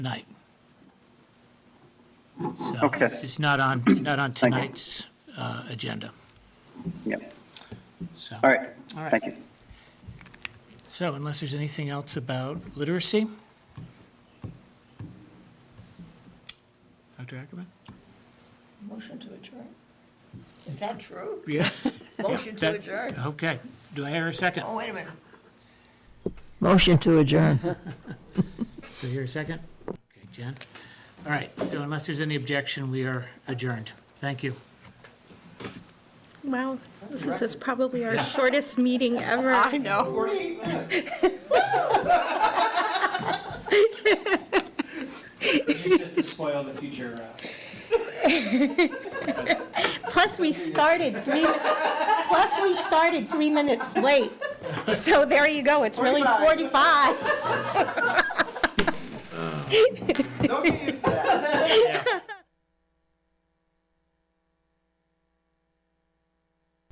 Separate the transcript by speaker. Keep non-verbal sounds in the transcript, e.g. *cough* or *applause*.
Speaker 1: night. So
Speaker 2: Okay.
Speaker 1: It's not on, not on
Speaker 2: Thank you.
Speaker 1: tonight's uh, agenda,
Speaker 2: Yep.
Speaker 1: so.
Speaker 2: All right.
Speaker 1: All right.
Speaker 2: Thank you.
Speaker 1: So unless there's anything else about literacy? Dr. Ackerman?
Speaker 3: Motion to adjourn. Is that true?
Speaker 1: Yes. *laughs*
Speaker 3: Motion to adjourn.
Speaker 1: Okay, do I hear a second?
Speaker 3: Oh, wait a minute.
Speaker 4: Motion to adjourn.
Speaker 1: Do I hear a second? Okay, Jen? All right, so unless there's any objection, we are adjourned. Thank you.
Speaker 5: Wow, this is- is probably our shortest meeting ever.
Speaker 3: know.
Speaker 6: Just to spoil the future, uh,
Speaker 5: Plus, we started three, plus we started three minutes late. So there you go, it's really 45.
Speaker 7: Don't get used to that.